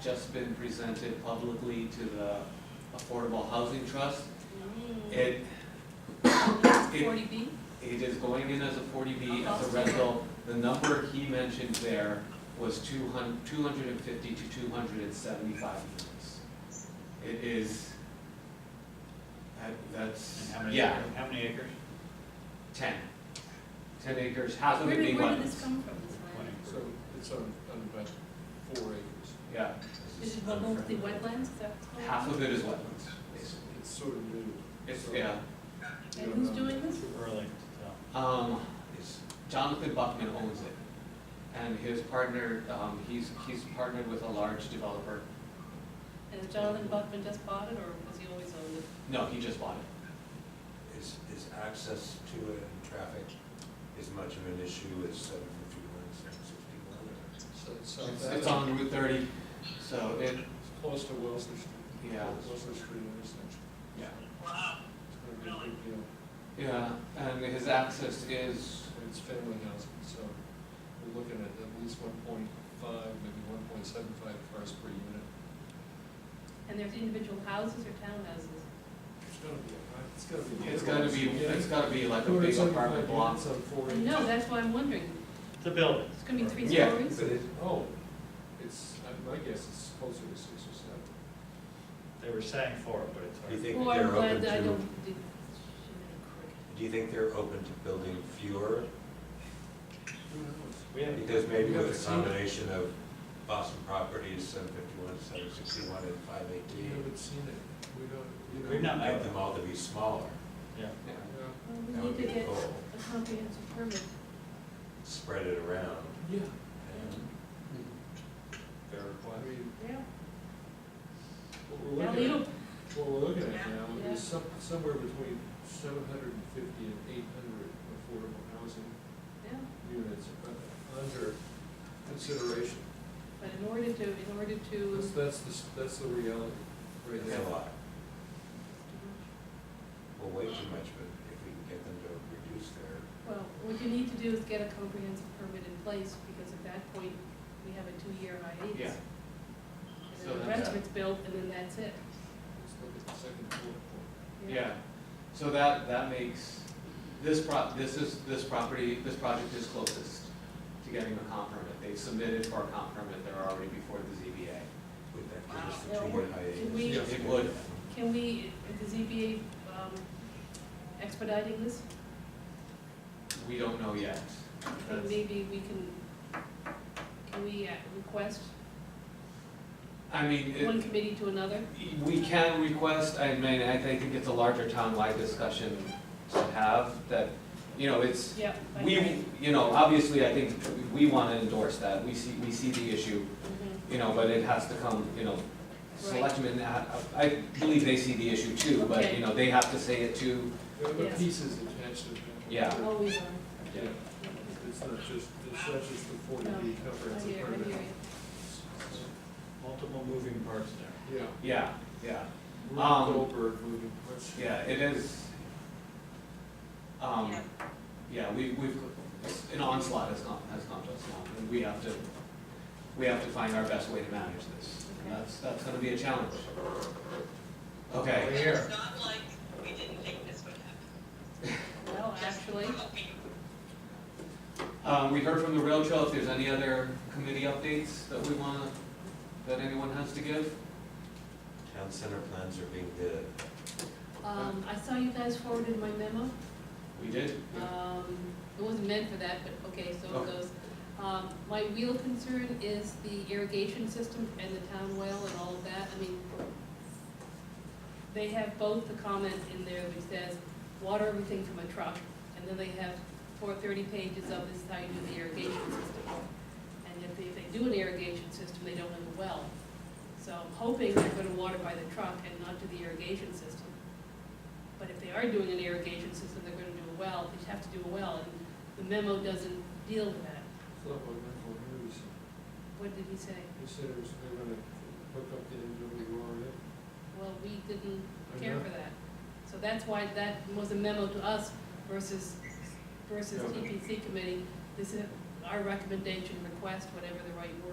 just been presented publicly to the Affordable Housing Trust. It, Forty B? it is going in as a forty B, as a Uh-huh. rental. The number he mentioned there was two hun- two hundred and fifty to two hundred and seventy-five units. It is, that- that's, And how many, yeah, acres- how many acres? ten. Ten acres, half of Where it being did, where did wetlands. this come from, this Twenty. land? So it's on, on about four acres. Yeah. Is it mostly wetlands, is that? Half of it is wetlands, basically. It's sort of new. It's, So- yeah, And who's doing this? Early to um, it's Jonathan Buckman owns it. And his partner, um, he's, he's partnered with a large developer. And has Jonathan Buckman just bought it, or was he always owned it? No, he just bought it. Is, is access to it and traffic as much of an issue as seven fifty-one, seven sixty-one? So it's on It's- that- It's on Route thirty, so it, it's close to Wellesley Street. Yeah. Wellesley Street intersection. yeah. It's gonna be a big deal. Yeah, and his access is, And It's family housing, so we're looking at at least one point five, maybe one point seven five cars per unit. And there's individual houses or townhouses? It's gonna be, a lot. it's gonna be. it's gotta be, it's gotta be like a big apartment block. on four acres. No, that's why I'm wondering, The building. it's gonna be three Yeah. stories? But it, Oh, it's, I- my guess is closer to six or seven. They were saying four, but it's do you hard. think Well, they're I'm open glad that I to, don't, did, should do you think they're open to building fewer? Who knows? We have, Because maybe We haven't with a seen it. combination of Boston properties, seven fifty-one, seven sixty-one, and five We eighteen, haven't seen it, we don't, you know. We've not make them all to be smaller, yeah, Yeah. Yeah. I That crave? Well, would we need be to the get goal. a comprehensive permit. spread it around. Yeah. and- fair I point. mean, Yeah. what we're Now, looking Leo, at, what we're looking at now Yeah. is some, somewhere between seven hundred and fifty and eight hundred affordable housing yeah, units uh, under consideration. but in order to, in order to, That's, that's the, s- that's the reality right It's a now. lot, well, way too much, but if we can get them to reduce their well, what you need to do is get a comprehensive permit in place, because at that point, we have a two-year hiatus. Yeah. And So then the that's- rest of it's built, and then that's it. Let's look at the second bullet point. Yeah, so that, that makes, this prop, this is, this property, this project is closest to getting a comp permit. They submitted for a comp permit, they're already before the Would that give us the Wow. two-year hiatus? Can we- ZBA. It would, Can we, is the ZBA um, expediting this? we don't know yet. I think maybe we can, can we uh, request I mean, it- one committee to another? we can request, I mean, I I think it's a larger town-wide discussion to have that, you know, it's, Yeah. I We, agree. you know, obviously, I think we want to endorse that, we see, we see the issue, Mhm. you know, but it has to come, you know, selectmen, I, I believe they see the issue too, but, Okay. you know, they have to say it too. There are Yeah. other pieces attached to that. Yeah. Always on. Yeah, it's not just, it's not just the forty B I comprehensive hear, I permit. hear Multiple moving parts there. Yeah, Yeah, yeah, Rube Um, Goldberg moving parts. yeah, it is, you. um, Yeah. yeah, we, we've, it's- an onslaught has gone, has gone just long, and we have to, we have to find our best way to manage this, and Okay. that's, that's gonna be a challenge. Over Okay, here. It's not like we didn't think this would happen. Well, actually, um, we heard from the rail trail, if there's any other committee updates that we wanna, that anyone has to give? Town center plans are being bid. um, I saw you guys forwarded my memo. We did? Um, it wasn't meant for that, but okay, so it Okay. goes. Um, my real concern is the irrigation system and the town well and all of that, I mean, they have both the comment in there which says, water everything from a truck, and then they have four thirty pages of this is how you do the irrigation system. And if they, if they do an irrigation system, they don't have a well. So I'm hoping they're gonna water by the truck and not do the irrigation system. But if they are doing an irrigation system, they're gonna do a well, they have to do a well, and the memo doesn't deal with that. Supplemental news, What did he say? he said it was, they were gonna hook up the NWRA. Well, we didn't care for that. So that's why that was a memo to us versus, versus E Yeah. TPC committee. This is our recommendation, request, whatever the right